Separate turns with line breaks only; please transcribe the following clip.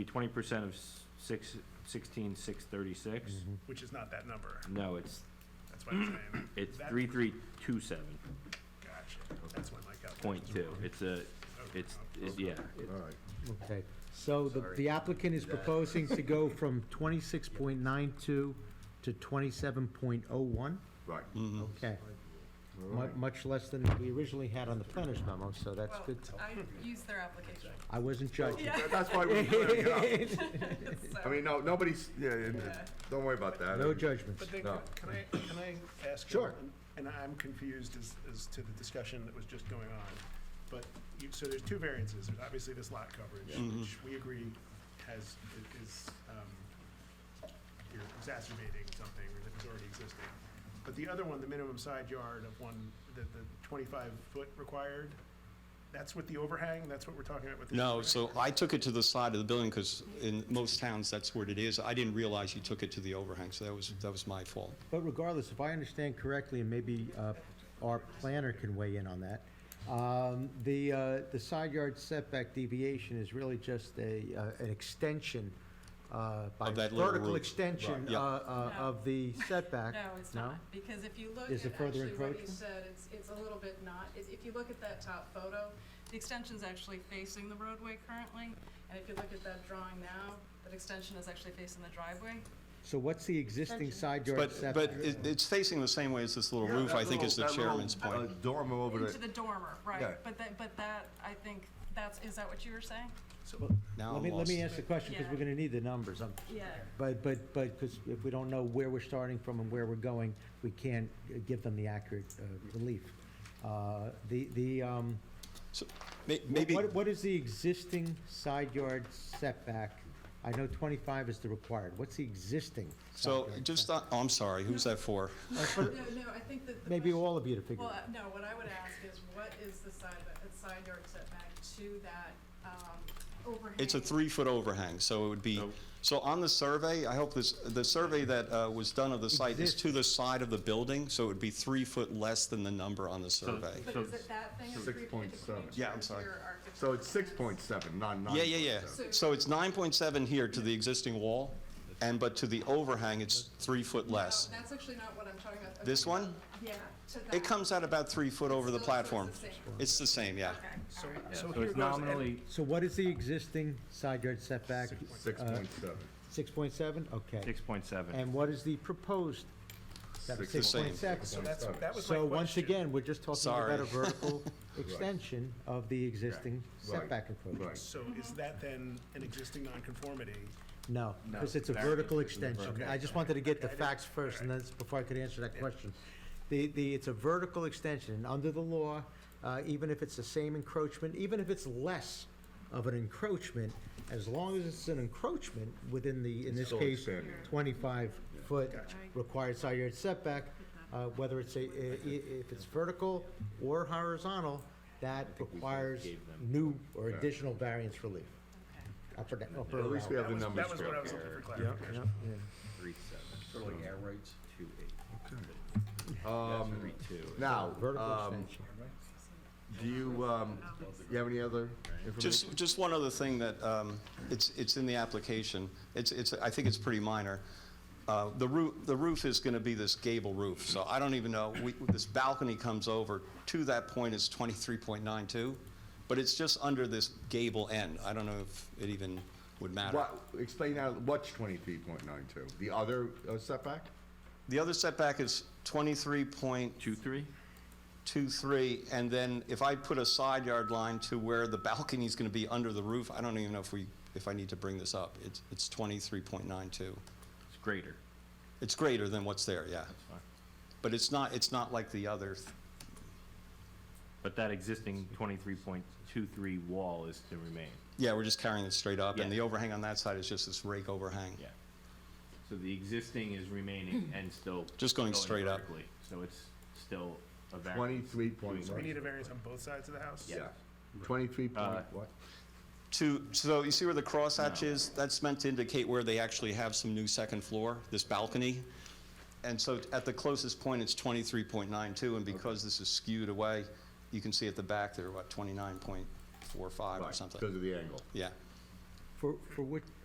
be twenty percent of s- six, sixteen, six thirty-six?
Mm-hmm.
which is not that number.
No, it's,
That's what I'm saying.
Mm. it's
That-
three, three, two, seven,
Gotcha. That's why my calculations.
point two.
were-
It's a,
Okay,
it's,
okay.
it's, yeah.
All right.
Okay, so the the applicant is proposing to go from 26.92 to 27.01?
Right.
Okay,
All
mu-
right.
much less than we originally had on the planner's memo, so that's
Well,
good.
I used their application,
I wasn't judging.
Yeah.
That's why we're clearing it up. I
so,
mean, no, nobody's, yeah, and-
Yeah.
don't worry about that.
No
And-
judgments.
But then,
No.
can I, can I ask? you-
Sure.
and- And I'm confused as, as to the discussion that was just going on. But you, so there's two variances. There's obviously this lot coverage,
Mm-hmm.
which we agree has, i- is, um, you're exacerbating something that was already existing. But the other one, the minimum side yard of one, the, the twenty-five foot required, that's with the overhang? That's what we're talking about with the?
No,
overhang?
so I took it to the side of the building because in most towns, that's what it is. I didn't realize you took it to the overhang, so that was, that was my fault.
But regardless, if I understand correctly, and maybe uh, our planner can weigh in on that, um, the, uh, the side yard setback deviation is really just a, uh, an extension uh, by
Of that little
vertical
roof.
extension
Right.
uh,
Yeah.
uh, of the setback.
no, it's
No?
not, because if you look at
Is it further
actually what you
encroachment?
said, it's, it's a little bit not, is- if you look at that top photo, the extension's actually facing the roadway currently, and if you look at that drawing now, that extension is actually facing the driveway.
So what's the existing side yard
But, but
setback?
it- it's facing the same way as this little
Yeah,
roof,
that
I think is the
little- that little,
chairman's point.
uh, Dormer over
Into
the,
the dormer,
Yeah.
right, but that, but that, I think, that's, is that what you were saying?
Now
Let
I'm
me, let
lost.
me ask the question, because we're
Yeah.
gonna need the numbers. I'm-
Yeah.
But, but, but, because if we don't know where we're starting from and where we're going, we can't uh, give them the accurate uh, relief. Uh, The, the, um,
So, may- Maybe,
What, what is the existing side yard setback? I know 25 is the required. What's the existing? side
so
yard
just, on- oh, I'm sorry, who's that for?
No, no, I think that the.
setback? Maybe
question-
all of you to figure it
Well,
out.
uh, no, what I would ask is, what is the side, the side yard setback to that, um, overhang?
It's a three-foot overhang, so it would be, so on the survey, I hope this, the survey that uh, was done of the site is to the side of the building, so it would be three foot less than the number on the survey.
But
So-
is it that thing?
so-
or three-
6.7.
it's
Yeah, I'm sorry.
your architecture
so it's six
plans?
point seven, not nine.
Yeah, yeah, yeah. So it's nine point seven here to the existing wall, and, but to the overhang, it's three foot
No,
less.
Oh, that's actually not what I'm talking about. I'm
This
talking
one?
about- Yeah, to that.
It comes out about three foot over the
Still, so it's
platform.
the same.
It's the same, yeah.
Okay.
So,
Yeah,
so
So
here
it's
goes. and-
nominally,
So what is the existing side yard setback?
Six point seven.
Uh, 6.7? Okay.
six point seven.
And what is the proposed? setback?
Six
same.
6.7.
So that's, that was my
So once
question.
again, we're just talking
Sorry.
about a vertical extension of the existing
Right.
setback encroachment.
Right.
So is that then an existing nonconformity?
No,
No.
because it's a
That-
vertical
it's a
extension.
vertical
I just wanted to get the
Okay, I didn't-
facts first, and that's before I could answer that question. The, the, it's a vertical extension, and under the law, uh, even if it's the same encroachment, even if it's less of an encroachment, as long as it's an encroachment within the, in this
still
case,
expanding.
twenty-five foot required side yard setback, uh, whether it's a, i- i- if it's vertical or horizontal, that requires
gave them-
new or additional variance relief. Upper, da- upper.
At least we
allowance.
have the
That was-
numbers
That was what I was
correct.
looking for clarification.
Yeah, yeah.
Three, seven. Sort of like air rates? Two, eight.
Um,
Three, two.
Now,
Vertical
um,
extension.
do you, um, you have any other information?
Just, just one other thing that, um, it's, it's in the application. It's, it's, I think it's pretty minor. Uh, the roof, the roof is gonna be this gable roof, so I don't even know, we, this balcony comes over, to that point is twenty-three point nine two, but it's just under this gable end. I don't know if it even would matter.
What, explain that, what's twenty-three point nine two? The other uh, setback?
The other setback is twenty-three point
Two, three?
two, three, and then if I put a side yard line to where the balcony's gonna be under the roof, I don't even know if we, if I need to bring this up. It's, it's twenty-three point nine two.
It's greater.
It's greater than what's there, yeah.
fine.
But it's not, it's not like the other, th-
But that existing twenty-three point two, three wall is to remain.
yeah, we're just carrying it straight up, and
Yeah.
the overhang on that side is just this rake overhang.
Yeah. So the existing is remaining and still.
Just going straight up.
vertically. So it's still a variance.
Twenty-three point
So we need
one?
a variance on both sides of the house?
Yeah. Twenty-three
Uh,
point what?
To, so you see where the crosshatch
No.
is? That's meant to indicate where they actually have some new second floor, this balcony. And so at the closest point, it's twenty-three point nine two, and because this is skewed away, you can see at the back, they're what, twenty-nine point four five or
Right,
something?
Because of the angle.
Yeah.
For, for which,